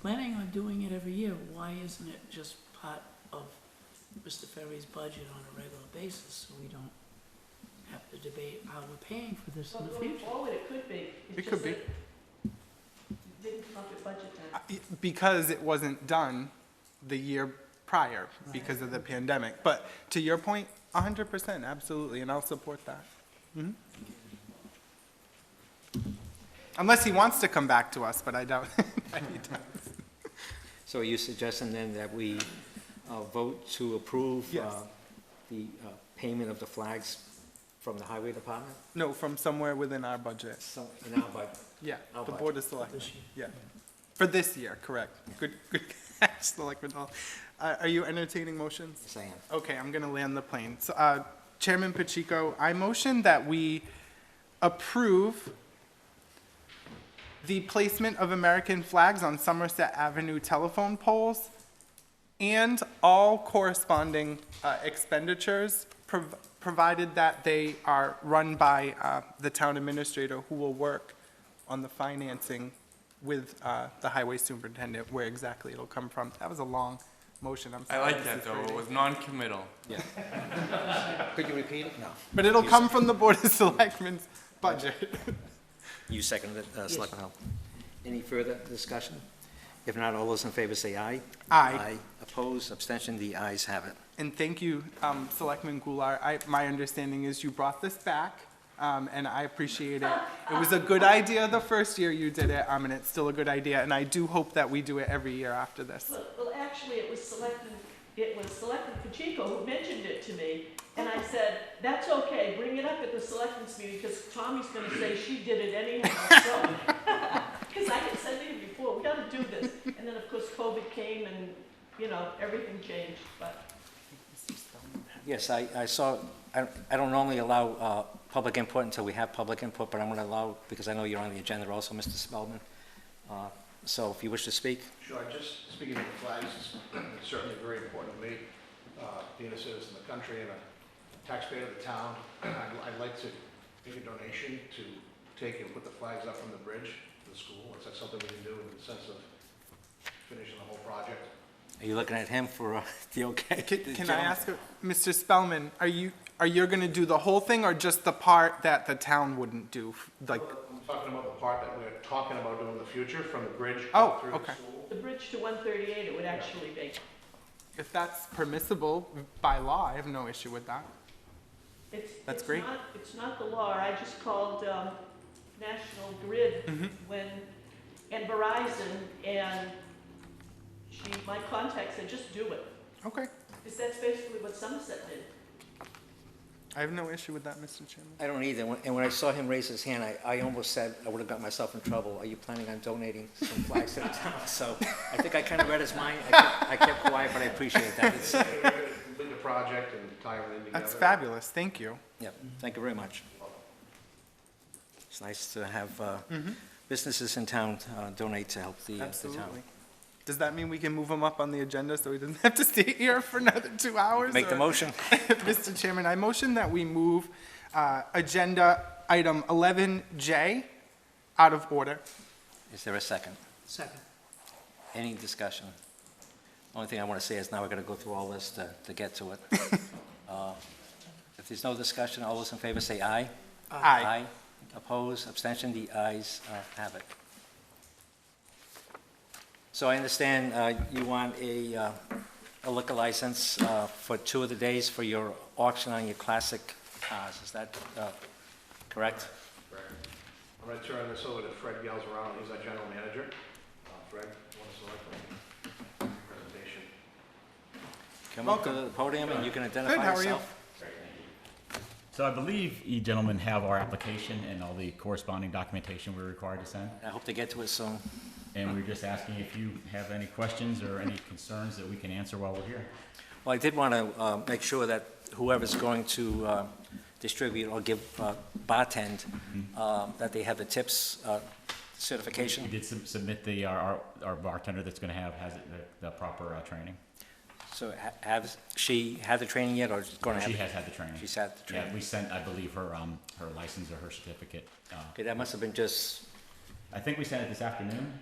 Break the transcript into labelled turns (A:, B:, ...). A: planning on doing it every year, why isn't it just part of Mr. Ferry's budget on a regular basis, so we don't have to debate how we're paying for this in
B: Well,
A: the
B: going
A: future?
B: forward, it could be. It's
C: It
B: just
C: could be.
B: that it Didn't come up at budget time.
C: Uh, because it wasn't done the year prior because of the pandemic. But to your point, hundred percent, absolutely, and I'll support that. Mhm. Unless he wants to come back to us, but I doubt.
D: So are you suggesting then that we uh, vote to approve
C: Yes.
D: uh, the uh, payment of the flags from the highway department?
C: No, from somewhere within our budget.
D: So, in our budget.
C: Yeah,
D: Our
C: the
D: budget.
C: Board of Selectmen, yeah. For this year, correct. Good, good catch, Selectman Hull. Uh, Are you entertaining motions?
D: Yes, I am.
C: Okay, I'm gonna land the plane. So, uh, Chairman Pacheco, I motion that we approve the placement of American flags on Somerset Avenue telephone poles and all corresponding uh, expenditures, prov- provided that they are run by uh, the town administrator, who will work on the financing with uh, the highway superintendent, where exactly it'll come from. That was a long motion, I'm
E: I
C: sorry.
E: like that
C: Mrs.
E: though.
C: Brady.
E: It was non-committal.
D: Could you repeat it? No.
C: But it'll come from the Board of Selectmen's budget.
D: You seconded it, uh, Selectman Hull. Any further discussion? If not, all those in favor say aye.
C: Aye.
D: Opposed, abstention, the ayes have it.
C: And thank you, um, Selectman Goulart. I, my understanding is you brought this back, um, and I appreciate it. It was a good idea the first year you did it, um, and it's still a good idea, and I do hope that we do it every year after this.
B: Well, well, actually, it was selectman, it was selectman Pacheco who mentioned it to me, and I said, that's okay, bring it up at the selectmen's meeting, because Tommy's gonna say she did it anyhow, so. Because I had said to him before, we gotta do this, and then, of course, COVID came and, you know, everything changed, but.
D: Yes, I, I saw, I, I don't normally allow, uh, public input until we have public input, but I'm gonna allow, because I know you're on the agenda also, Mr. Spelman. Uh, So if you wish to speak,
F: Sure, just speaking of the flags, it's certainly very important to me, uh, being a citizen of the country and a taxpayer of the town. I'd I'd like to make a donation to take and put the flags up on the bridge to the school. Is that something we can do in the sense of finishing the whole project?
D: are you looking at him for, uh, the okay?
C: Can can I ask, Mr. Spellman, are you, are you gonna do the whole thing, or just the part that the town wouldn't do? Like,
F: I'm talking about the part that we're talking about doing in the future, from the bridge
C: Oh,
F: up through
C: okay.
F: the school.
B: The bridge to one thirty-eight, it would actually be,
C: if that's permissible by law, I have no issue with that.
B: It's,
C: That's
B: it's
C: great.
B: not, it's not the law. I just called, um, National Grid
C: Mm-hmm.
B: when, and Verizon, and she, my contact said, just do it.
C: Okay,
B: Because that's basically what Somerset did.
C: I have no issue with that, Mr. Chairman.
D: I don't either, When- and when I saw him raise his hand, I, I almost said, I would've got myself in trouble, are you planning on donating some flags to the town? So, I think I kinda read his mind, I kept, I kept quiet, but I appreciate that, It's-
F: Complete the project and tie everything together.
C: That's fabulous, thank you.
D: Yep, thank you very much. It's nice to have uh,
C: Mm-hmm.
D: businesses in town uh, donate to help the uh, the town.
C: Absolutely. Does that mean we can move him up on the agenda so he doesn't have to stay here for another two hours?
D: Make the
C: or-
D: motion.
C: Mr. Chairman, I motion that we move uh, Agenda Item 11J out of order.
D: Is there a second?
A: Second.
D: Any discussion? Only thing I want to say is now we're going to go through all this to, to get to it. Uh, If there's no discussion, all those in favor say aye.
C: Aye.
D: Oppose, abstention, the ayes uh, have it. So I understand uh, you want a, uh, a liquor license uh, for two of the days for your auction on your classic cars, is that uh, correct?
F: Correct. I'm gonna turn this over to Fred Gales around, he's our general manager. Uh, Fred, you wanna select the presentation?
D: Come up to the podium and you can
C: Good,
D: identify
C: how are you?
D: yourself.
G: So I believe you gentlemen have our application and all the corresponding documentation we're required to send.
D: I hope to get to it soon.
G: And we're just asking if you have any questions or any concerns that we can answer while we're here.
D: Well, I did want to make sure that whoever's going to uh, distribute or give uh, bartend,
G: Mm-hmm.
D: uh, that they have the tips uh,
G: We
D: certification.
G: did sub- submit the, our- our, our bartender that's gonna have, has it- the, the proper uh, training.
D: So ha- has she had the training yet, or is going to have?
G: She
D: it?
G: has had the training.
D: She's had the
G: Yeah,
D: training.
G: we sent, I believe, her, um, her license or her certificate. uh,
D: Okay, that must have been just,
G: I think we sent it this afternoon.